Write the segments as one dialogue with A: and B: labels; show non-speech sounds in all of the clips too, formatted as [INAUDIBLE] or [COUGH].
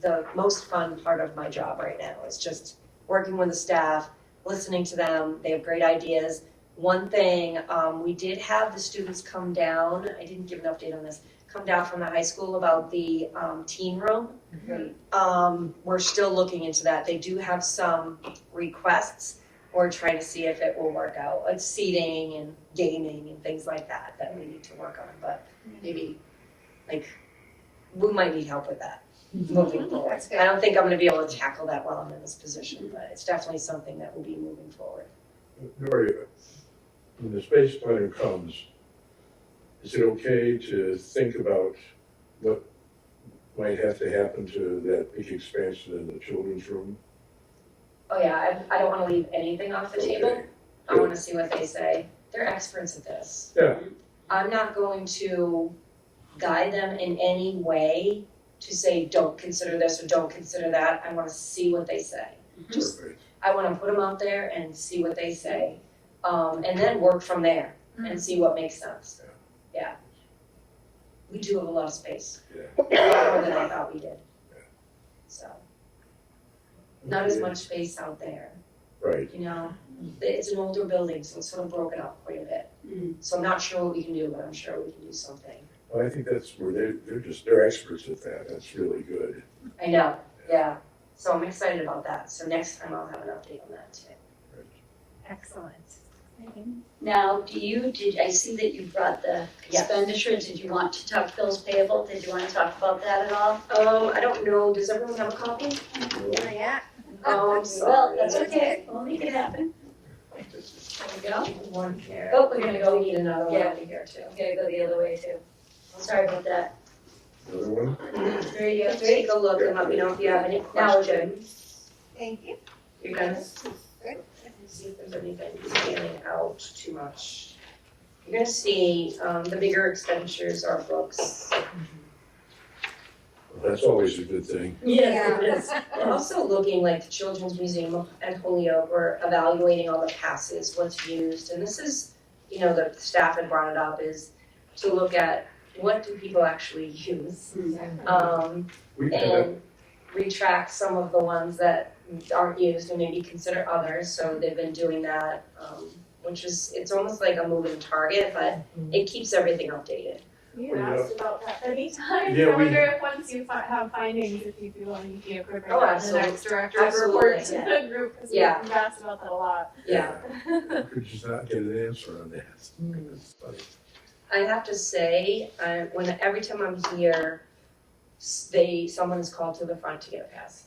A: the most fun part of my job right now. It's just working with the staff, listening to them. They have great ideas. One thing, um, we did have the students come down, I didn't give an update on this, come down from the high school about the, um, teen room. Um, we're still looking into that. They do have some requests. We're trying to see if it will work out, like seating and gaming and things like that, that we need to work on, but maybe, like, we might need help with that moving forward.
B: That's
A: I don't think I'm gonna be able to tackle that while I'm in this position, but it's definitely something that will be moving forward.
C: Gloria, when the space plan comes, is it okay to think about what might have to happen to that big expansion in the children's room?
A: Oh, yeah, I, I don't wanna leave anything off the table.
C: Okay.
A: I wanna see what they say. They're experts at this.
C: Yeah,
A: I'm not going to guide them in any way to say, don't consider this or don't consider that. I want to see what they say. Just,
C: perfect.
A: I want to put them out there and see what they say, um, and then work from there and see what makes sense. Yeah. We do have a lot of space. A lot more than I thought we did. So, not as
C: Okay.
A: much space out there,
C: Right,
A: you know? It's an older building, so it's sort of broken up quite a bit. So I'm not sure what we can do, but I'm sure we can do something.
C: well, I think that's where they're, they're just, they're experts at that, that's really good.
A: I know, yeah. So I'm excited about that. So next time I'll have an update on that too.
D: Excellent.
B: Now, do you, did, I see that you brought the
A: Yes.
B: expenditure, did you want to talk bills payable, did you wanna talk about that at all?
A: Um, I don't know, does everyone have a copy?
D: Yeah.
A: Oh, I'm
B: Well,
A: sorry.
B: that's okay, we'll make it happen. There we go,
A: One here.
B: Oh, we're gonna go-
A: We need another one
B: Yeah.
A: over here too.
B: I'm gonna go the other way too. Sorry about that.
C: Another one?
B: Three, you have three?
A: Take a look and let me know if you have any
B: Now we're
A: questions.
B: good.
D: Thank you.
A: You're gonna see if there's anything standing out too much. You're gonna see, um, the bigger expenditures are books.
C: That's always a good thing.
D: Yes,
A: it is. We're also looking like the Children's Museum at Holyoke, we're evaluating all the passes, what's used, and this is, you know, the staff had brought it up, is to look at what do people actually use? Um,
C: We kind
A: and retract some of the ones that aren't used and maybe consider others, so they've been doing that, um, which is, it's almost like a moving target, but it keeps everything updated.
E: You
C: Yeah.
E: asked about that many times.
C: Yeah,
E: I
C: we-
E: wonder if once you fi- have findings, if you'd be willing to incorporate
A: Oh,
E: that in the
A: absolute-
E: next director's report to
A: absolutely.
E: the group, because
A: Yeah.
E: we've asked about that a lot.
A: Yeah, Mm.
C: of could just not get an answer on that. It's funny.
A: I have to say, I, when every time I'm here, s- they someone is called to the front to get a pass.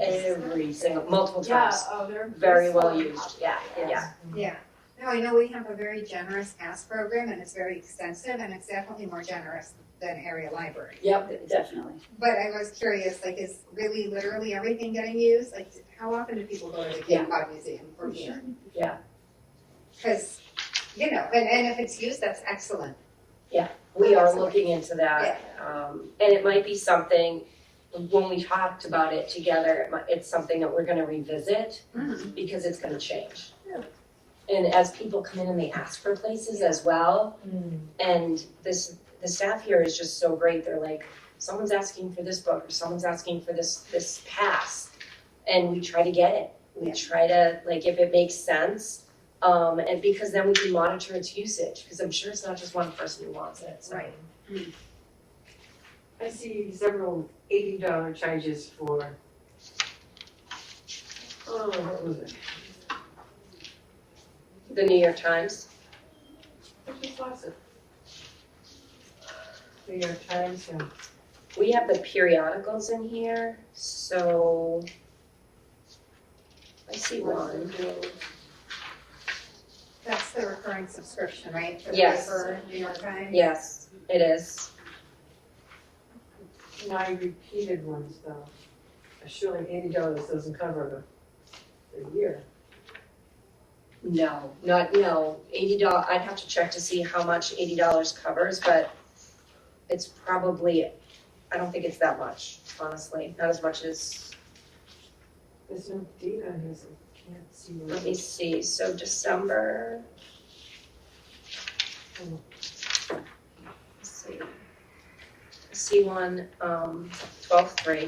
A: Every single, multiple
E: Yeah,
A: times.
E: oh, they're.
A: Very
E: they're
A: well
E: so-
A: used. Yeah, yeah.
D: [LAUGHS] Yeah. No, I know we have a very generous pass program and it's very extensive and it's definitely more generous than area library.
B: Yep, definitely.
D: But I was curious, like, is really literally everything getting used? Like, how often do people go to the
A: Yeah.
D: Cape Cod Museum from here?
A: Yeah.
D: Because, you know, and, and if it's used, that's excellent.
A: We are looking into that. Um, and it might be something, when we talked about it together, it might, it's something that we're gonna revisit because it's gonna change.
D: Yeah.
A: And as people come in and they ask for places as well,
D: Hmm.
A: And this, the staff here is just so great, they're like, someone's asking for this book, or someone's asking for this, this pass. And we try to get it, we
D: Yeah.
A: try to, like, if it makes sense, um, and because then we can monitor its usage, because I'm sure it's not just one person who wants it, so.
D: Right.
F: I see several eighty dollar charges for. Oh, what was it?
A: The New York Times,
F: I just lost it. New York Times and
A: we have the periodicals in here, so. I see one,
D: That's the recurring subscription, right? For the
A: Yes.
D: paper, New York Times?
A: yes, it is,
F: nine repeated ones though. Surely eighty dollars doesn't cover the, the year.
A: No, not, no, eighty dollars. I'd have to check to see how much eighty dollars covers, but it's probably, I don't think it's that much, honestly, not as much as,
F: There's no date on here, so I can't see where.
A: let me see, so December. Let's see. I See one, um, twelve three.